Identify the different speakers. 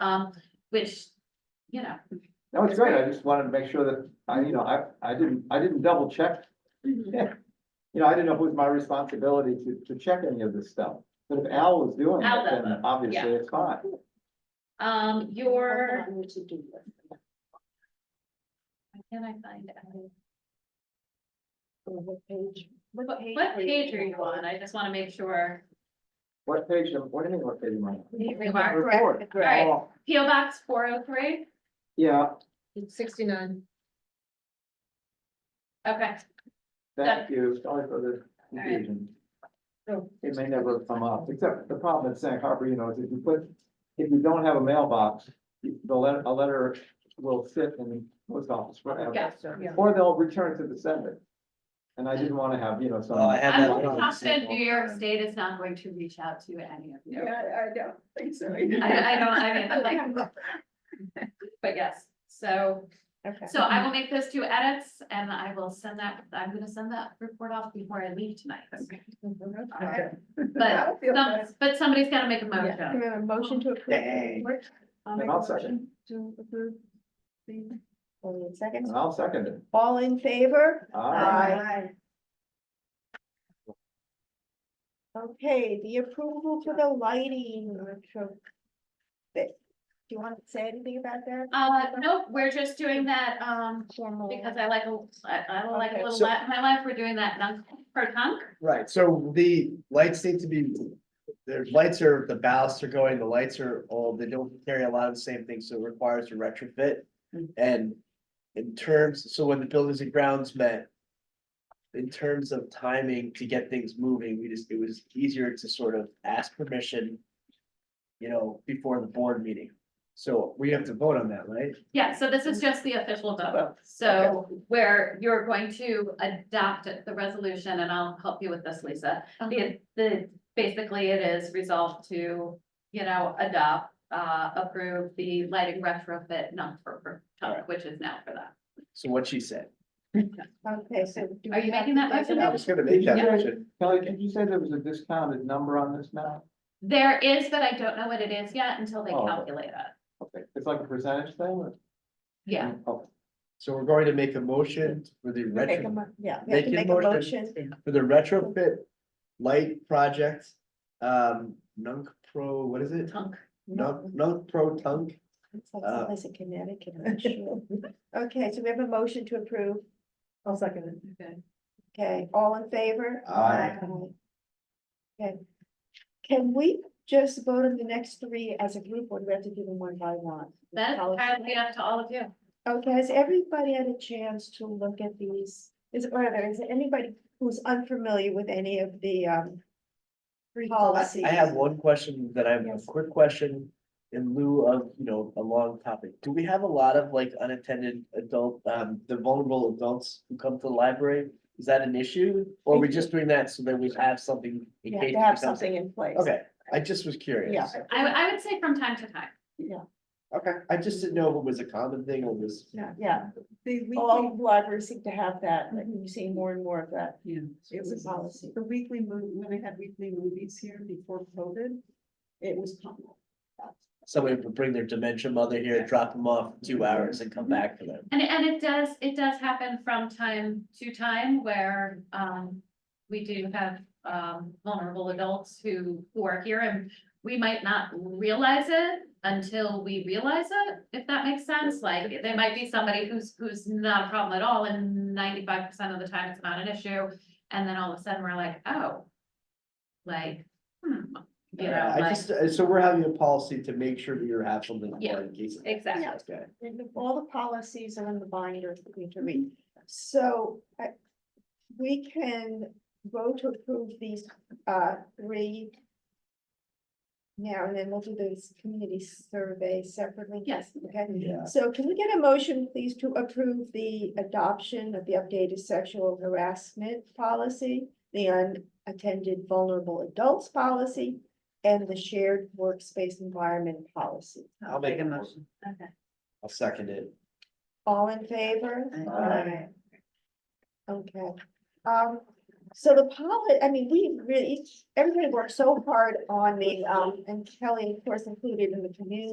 Speaker 1: um, which, you know.
Speaker 2: No, it's great. I just wanted to make sure that, I, you know, I, I didn't, I didn't double check. You know, I didn't know it was my responsibility to, to check any of this stuff. But if Al was doing
Speaker 1: Al
Speaker 2: it,
Speaker 1: does
Speaker 2: then
Speaker 1: it,
Speaker 2: obviously
Speaker 1: yeah.
Speaker 2: it's fine.
Speaker 1: Um, your,
Speaker 3: I'm to do this.
Speaker 1: why can I find out?
Speaker 3: What page?
Speaker 1: What what page are you on? I just wanna make sure.
Speaker 2: What page, am- what do you mean, what page am I on?
Speaker 1: You are
Speaker 2: The
Speaker 3: correct,
Speaker 2: report.
Speaker 3: correct.
Speaker 2: Oh,
Speaker 1: P O Box four oh three,
Speaker 2: Yeah,
Speaker 3: Sixty-nine.
Speaker 1: okay,
Speaker 2: thank you. Sorry for the
Speaker 1: right.
Speaker 2: confusion.
Speaker 3: No.
Speaker 2: It may never come up, except the problem at Sag Harbor, you know, is if you put, if you don't have a mailbox, the letter, a letter will sit in the post office forever.
Speaker 1: Yeah.
Speaker 2: Or they'll return to the sender. And I didn't wanna have, you know, some.
Speaker 4: Oh, I had
Speaker 1: I'm
Speaker 4: that.
Speaker 1: confident New York State is not going to reach out to any of you.
Speaker 3: I don't think so.
Speaker 1: I, I don't, I mean, I'm like, but yes, so, so I will make those two edits and I will send that, I'm gonna send that report off before I leave tonight.
Speaker 3: Okay.
Speaker 1: But, some- but somebody's gotta make a
Speaker 3: Yeah.
Speaker 1: motion.
Speaker 3: Motion to approve. um,
Speaker 4: Dang.
Speaker 2: And I'll second,
Speaker 3: To approve. Only seconds.
Speaker 2: and I'll second it.
Speaker 3: All in favor?
Speaker 1: Uh,
Speaker 2: Aye.
Speaker 3: Okay, the approval for the lighting. retro- bit. Do you want to say anything about that?
Speaker 1: Uh, nope, we're just doing that, um,
Speaker 3: Formal.
Speaker 1: because I like, a I I like a
Speaker 3: Okay,
Speaker 1: little,
Speaker 4: so-
Speaker 1: la- my life, we're doing that non per hunk.
Speaker 4: Right, so the lights need to be, the lights are, the ballasts are going, the lights are old, they don't carry a lot of the same things, so it requires a retrofit. And in terms, so when the buildings and grounds met. In terms of timing to get things moving, we just, it was easier to sort of ask permission. You know, before the board meeting, so we have to vote on that, right?
Speaker 1: Yeah, so this is just the official vote, so where you're going to adopt it- the resolution, and I'll help you with this, Lisa. The, the, basically, it is resolved to, you know, adopt, uh, approve the lighting retrofit non-for,
Speaker 4: Alright.
Speaker 1: which is now for that.
Speaker 4: So what she said.
Speaker 3: Okay, so. do
Speaker 1: Are
Speaker 3: we
Speaker 1: you
Speaker 3: have
Speaker 1: making
Speaker 3: to
Speaker 1: that
Speaker 3: take it
Speaker 1: motion
Speaker 3: up?
Speaker 1: now?
Speaker 4: was gonna make that motion.
Speaker 2: Kelly, did you say there was a discounted number on this now?
Speaker 1: There is, but I don't know what it is yet until they
Speaker 2: Oh, okay.
Speaker 1: calculate it,
Speaker 2: Okay, it's like a percentage thing or?
Speaker 1: yeah.
Speaker 2: Oh,
Speaker 4: So we're going to make a motion for the
Speaker 3: We make a
Speaker 4: retrofit.
Speaker 3: mo- Yeah, we have to make
Speaker 4: Make a
Speaker 3: a
Speaker 4: motion.
Speaker 3: motion.
Speaker 4: for the retrofit light project, um, Nunk Pro, what is it?
Speaker 1: Tunk.
Speaker 4: Nunk, Nunk Pro Tunk,
Speaker 3: It's like
Speaker 4: Uh,
Speaker 3: someplace in Connecticut, I'm not sure. Okay, so we have a motion to approve. I'll second
Speaker 1: Okay.
Speaker 3: Okay, all in favor?
Speaker 4: Aye.
Speaker 3: Okay. Can we just vote on the next three as a group, or do we have to do them one by one?
Speaker 1: That's entirely up to all of you.
Speaker 3: Okay, has everybody had a chance to look at these? Is, or there is anybody who's unfamiliar with any of the, um, policies?
Speaker 4: Oh, I have one question that I have, a
Speaker 3: Yes.
Speaker 4: quick question in lieu of, you know, a long topic. Do we have a lot of like unattended adult, um, the vulnerable adults who come to the library? Is that an issue? Or are we just doing that so that we have something in
Speaker 3: You
Speaker 4: case?
Speaker 3: have
Speaker 4: it
Speaker 3: to have
Speaker 4: becomes-
Speaker 3: something in place.
Speaker 4: Okay, I just was curious.
Speaker 3: Yeah.
Speaker 1: I, would- I would say from time to time.
Speaker 4: Okay, I just didn't know if it was a common thing or was.
Speaker 3: Yeah, yeah. All libraries seem to have that, like you see more and more of that.
Speaker 5: Yeah, it
Speaker 3: It's a
Speaker 5: was
Speaker 3: policy.
Speaker 5: the weekly movie, when they had weekly movies here before COVID, it was common.
Speaker 4: somebody would bring their dementia mother here, drop them off for two hours and come back for them.
Speaker 1: And, and it does, it does happen from time to time where, um, we do have, um, vulnerable adults who, who are here and we might not realize it until we realize it, if that makes sense. Like, there might be somebody who's, who's not a problem at all and ninety-five percent of the time it's not an issue. And then all of a sudden we're like, oh, like, hmm, you know,
Speaker 4: I
Speaker 1: like,
Speaker 4: just, uh, so we're having a policy to make sure that you have something
Speaker 1: Yeah,
Speaker 4: for in case. of-
Speaker 1: exactly.
Speaker 4: Okay.
Speaker 3: And the- all the policies are in the binder for me to read. So I, we can vote to approve these uh three. Now, and then we'll do this community survey separately.
Speaker 1: Yes.
Speaker 3: Okay,
Speaker 4: Yeah.
Speaker 3: so can we get a motion, please, to approve the adoption of the updated sexual harassment policy? The unattended vulnerable adults policy and the shared workspace environment policy.
Speaker 4: I'll make a motion.
Speaker 1: okay.
Speaker 4: I'll second it.
Speaker 3: All in favor?
Speaker 4: Aye.
Speaker 3: Okay, um, so the pilot, I mean, we really, everybody worked so hard on the, um, and Kelly, of course, included in the community